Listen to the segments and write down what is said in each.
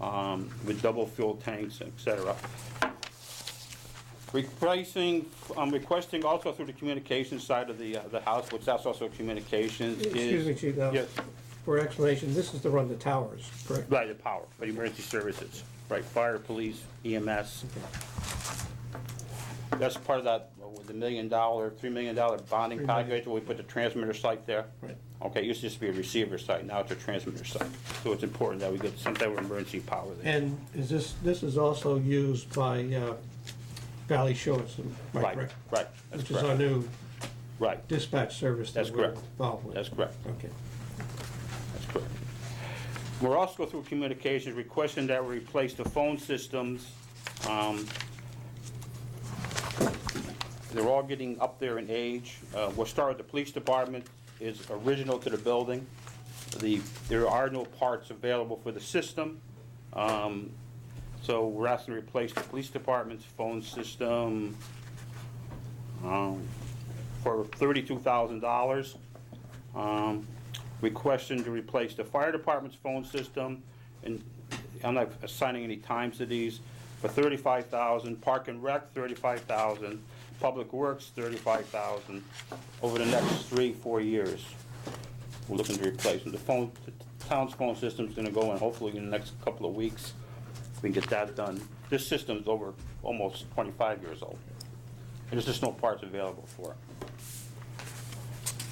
um, with double fuel tanks, et cetera. Replacing, I'm requesting also through the communications side of the, uh, the house, which that's also communications is. Excuse me, Chief, now, Yes, for explanation, this is to run the towers, correct? right, the power, the emergency services, right, fire, police, EMS. That's part of that, uh, with the million dollar, three million dollar bonding Three million. package, where we put the transmitter site there. Right. Okay, it used to just be a receiver site, now it's a transmitter site, so it's important that we get some type of emergency power there. And is this, this is also used by uh, Valley Shores, am I Right, correct? right, that's Which is our correct, new right, dispatch service That's that we're correct. involved with. that's correct. Okay. That's correct. We're also through communications requesting that we replace the phone systems. Um, They're all getting up there in age. Uh, We'll start with the police department is original to the building. The, there are no parts available for the system. Um, So we're asking to replace the police department's phone system um, for $32,000. Um, Requesting to replace the fire department's phone system, and I'm not assigning any times to these, for thirty-five thousand, park and rec, thirty-five thousand, public works, thirty-five thousand, over the next three, four years. We're looking to replace, and the phone, the town's phone system's gonna go in hopefully in the next couple of weeks, we can get that done. This system's over almost twenty-five years old, and there's just no parts available for it.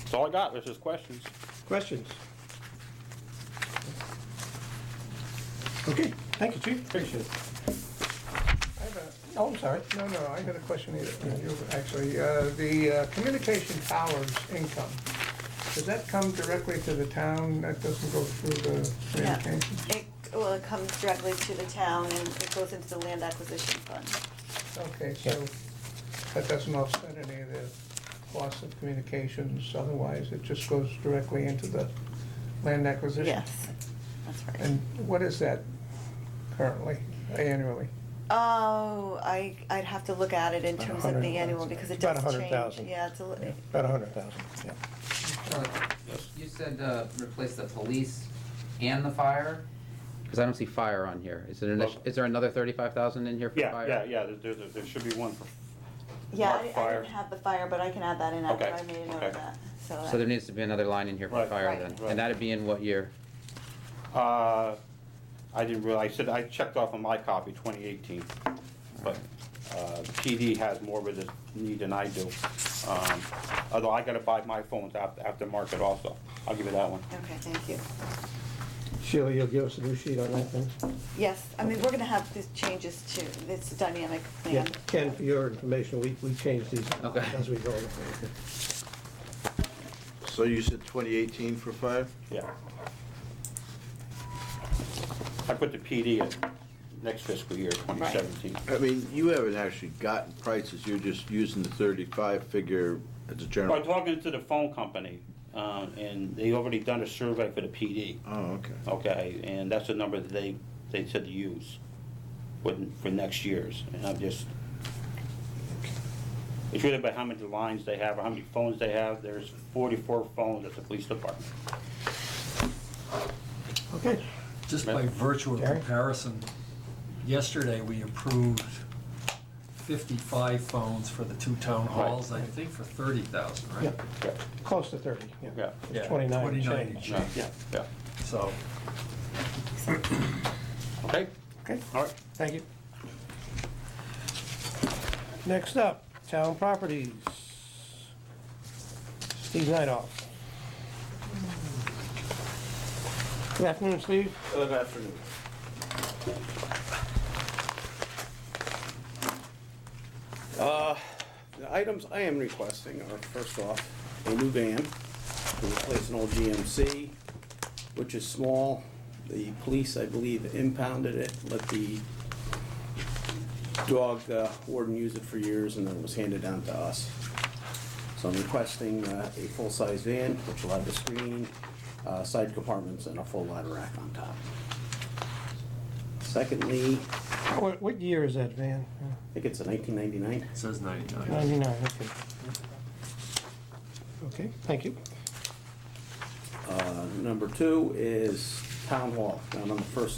That's all I got, there's just questions. Questions? Okay, thank you, Chief, appreciate it. I have a- Oh, I'm sorry. No, no, I got a question either, you, actually. Uh, The uh, communication towers income, does that come directly to the town? That doesn't go through the Yeah. communication? It, well, it comes directly to the town and it goes into the land acquisition fund. Okay, so that doesn't offset any of the cost of communications otherwise? It just goes directly into the land acquisition? Yes, that's right. And what is that currently, annually? Oh, I, I'd have to look at it in About terms of the 100,000. annual because it About does change. 100,000. Yeah, it's a, li- About a hundred thousand, yeah. Uh, You said uh, replace the police and the fire? Because I don't see fire on here. Is it an, Well- is there another thirty-five thousand in here for Yeah, fire? yeah, yeah, there, there, there should be one for, yeah, Mark I- I fire. didn't have the fire, but I can add that in after Okay, I made a note okay. of that. So, So there that- needs to be another line in here for Right. fire Right. then, Right. and that'd be in what year? uh, I didn't realize, I said, I checked off on my copy, twenty eighteen. But, uh, PD has more of a need than I do. Um, although I gotta buy my phones after, after market also. I'll give you that one. okay, thank you. Sheila, you'll give us a new sheet on that thing? Yes, I mean, we're gonna have these changes too. It's a dynamic plan. Ken, for your information, we, we change these Okay. as we go. So you said 2018 for five? Yeah. I put the PD at next fiscal year, twenty seventeen. I mean, you haven't actually gotten prices, you're just using the 35 figure as a I'm general. talking to the phone company, um, and they already done a survey for the PD. Oh, okay. Okay, and that's the number that they, they said to use for, for next year's, and I'm just, it's really about how many lines they have, or how many phones they have, there's forty-four phones at the police department. Okay, Just by virtue of Gary? comparison, yesterday we approved 55 phones for the two town halls, I think for 30,000, yeah, right? close to thirty, yeah. Yeah, Yeah, Twenty-nine and 29 change. and yeah, yeah, So, okay, Okay, all right. thank you. Next up, town properties. Steve Nightoff. Good afternoon, Steve. Good afternoon. Uh, The items I am requesting are, first off, a new van to replace an old GMC, which is small. The police, I believe, impounded it, let the dog uh, warden use it for years, and then it was handed down to us. So I'm requesting uh, a full-size van, which will have a screen, uh, side compartments, and a full ladder rack on top. Secondly, What, what year is that van? I think it's a 1999. it says 99. Ninety-nine, okay. Okay, thank you. Uh, Number two is Town Hall, down on the first